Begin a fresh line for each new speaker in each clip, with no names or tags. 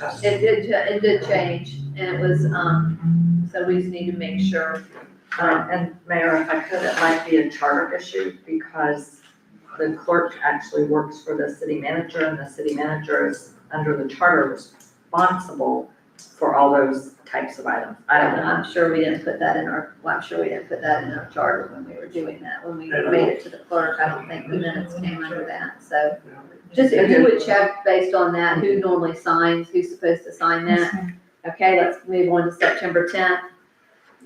It did, cha- it did change, and it was, um, so we just need to make sure,
Um, and Mayor, if I could, it might be a charter issue because the clerk actually works for the city manager and the city manager is under the charter responsible for all those types of items. I don't know.
I'm sure we didn't put that in our, well, I'm sure we didn't put that in our charter when we were doing that, when we
Yeah.
made it to the clerk, I don't think the minutes came under that, so. Just if you would check based on that, who normally signs, who's supposed to sign that, okay, let's move on to September tenth,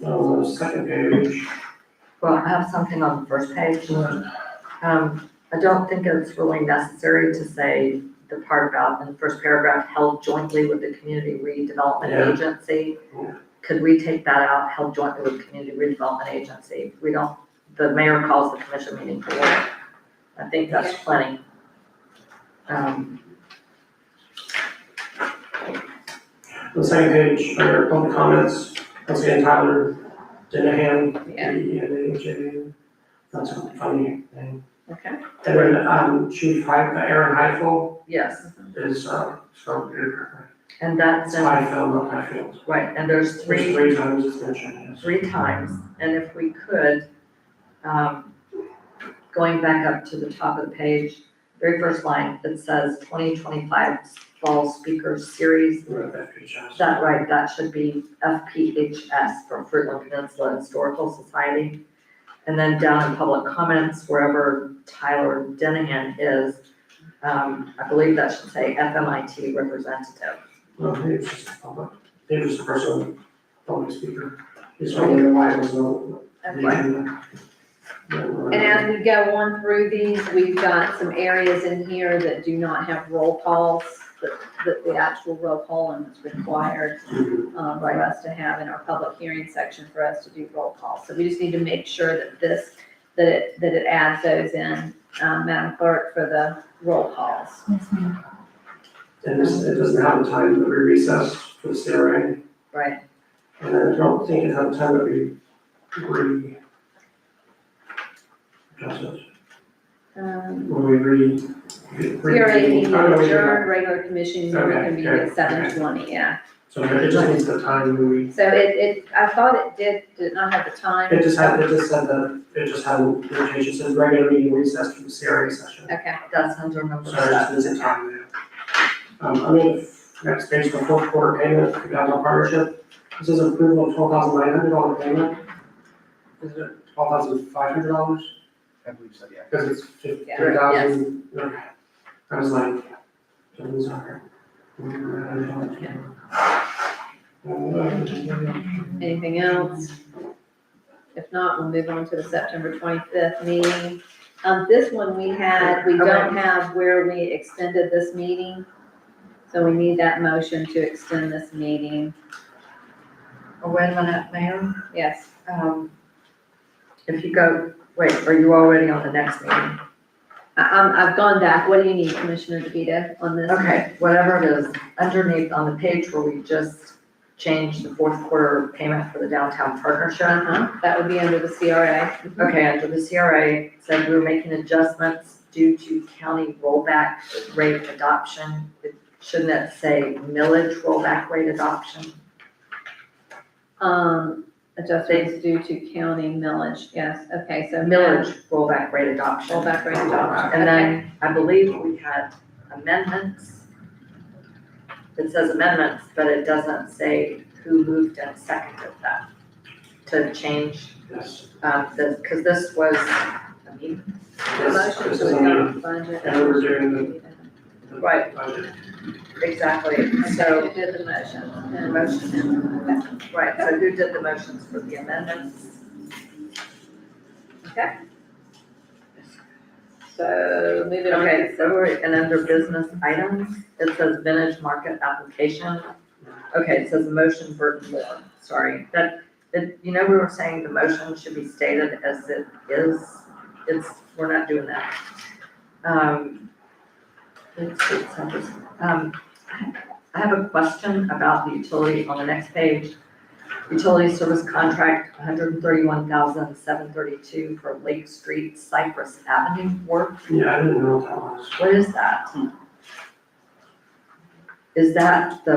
Uh, second page,
Well, I have something on the first page. Um, I don't think it's really necessary to say the part about in the first paragraph, held jointly with the community
Yeah.
redevelopment agency.
Yeah.
Could we take that out, held jointly with community redevelopment agency? We don't, the mayor calls the commission meeting for order. I think that's plenty. Um,
the second page, under public comments, once again, Tyler Dinahan, D
Yeah.
E N A J A N. That's a funny name.
Okay.
And then, um, Chief Heif, Aaron Heifel
yes,
is, uh, so,
and that's,
it's
in-
Heifel, not Heifel.
right, and there's
There's
three
three times it's mentioned, yes.
three times, and if we could, um, going back up to the top of the page, very first line, it says twenty twenty-five Fall Speaker Series.
We wrote that page out.
That right, that should be FPHS for Fruitland Peninsula Historical Society. And then down in public comments, wherever Tyler Denahan is, um, I believe that should say FMIT representative.
No, Dave's just a public, Dave is the person, public speaker. He's only why it was no.
okay.
uh,
And as we go on through these, we've got some areas in here that do not have roll calls, that, that the actual roll call and it's required, um, for us to have in our public hearing section for us to do roll calls. So we just need to make sure that this, that it, that it adds those in, um, Madam Clerk, for the roll calls.
And this, it doesn't have the time that we recess for the CRA,
Right,
and then I don't think it had the time that we re. Adjust it,
um,
when we re. re-
CRA meeting
Oh, no, we did not.
adjourned, regular commission meeting
Okay,
can be
okay,
at seven twenty, yeah.
So it just needs the time when we,
So it, it, I thought it did, did not have the time.
it just had, it just said that, it just had, the page, it says regular meeting recess for the CRA session.
Okay.
That's under number
Sorry, just
seven.
missing time there. Um, I mean, next page, the fourth quarter payment, the Gagnon partnership, this is approval of twelve thousand nine hundred dollar payment. Is it twelve thousand five hundred dollars?
I believe so, yeah.
Because it's fifteen
Yeah,
thousand, okay, I was like, that was hard. Um,
Anything else? If not, we'll move on to the September twenty-fifth meeting. Um, this one we had, we don't have where we extended this meeting. So we need that motion to extend this meeting.
Oh, Wait a minute, Mayor.
Yes,
Um, if you go, wait, are you already on the next meeting?
I, I'm, I've gone back. What do you need, Commissioner DeVita, on this?
Okay, whatever it is, underneath on the page where we just changed the fourth quarter payment for the downtown partnership.
Uh-huh, that would be under the CRA.
Okay, under the CRA, said we were making adjustments due to county rollback rate adoption. Shouldn't it say millage rollback rate adoption?
Um, adjustments due to county millage, yes, okay, so.
Millage rollback rate adoption.
Rollback rate adoption.
And then I believe we had amendments. It says amendments, but it doesn't say who moved and seconded that to change,
Yes,
um, this, cause this was, I mean,
yes,
Motion
this
to
is on
adopt budget.
and we're doing the.
Right.
Budget.
exactly,
So
so,
who did the motion?
the motion, right, so who did the motions for the amendments?
Okay. So moving on.
Okay, so we're, and under business items, it says vintage market application. Okay, it says motion Burton Moore, sorry, that, that, you know, we were saying the motion should be stated as it is, it's, we're not doing that. Um, let's see, it's not this- um, I have a question about the utility on the next page. Utility service contract, 131732 for Lake Street Cypress Avenue work.
Yeah, I didn't know what that was.
What is that? Is that the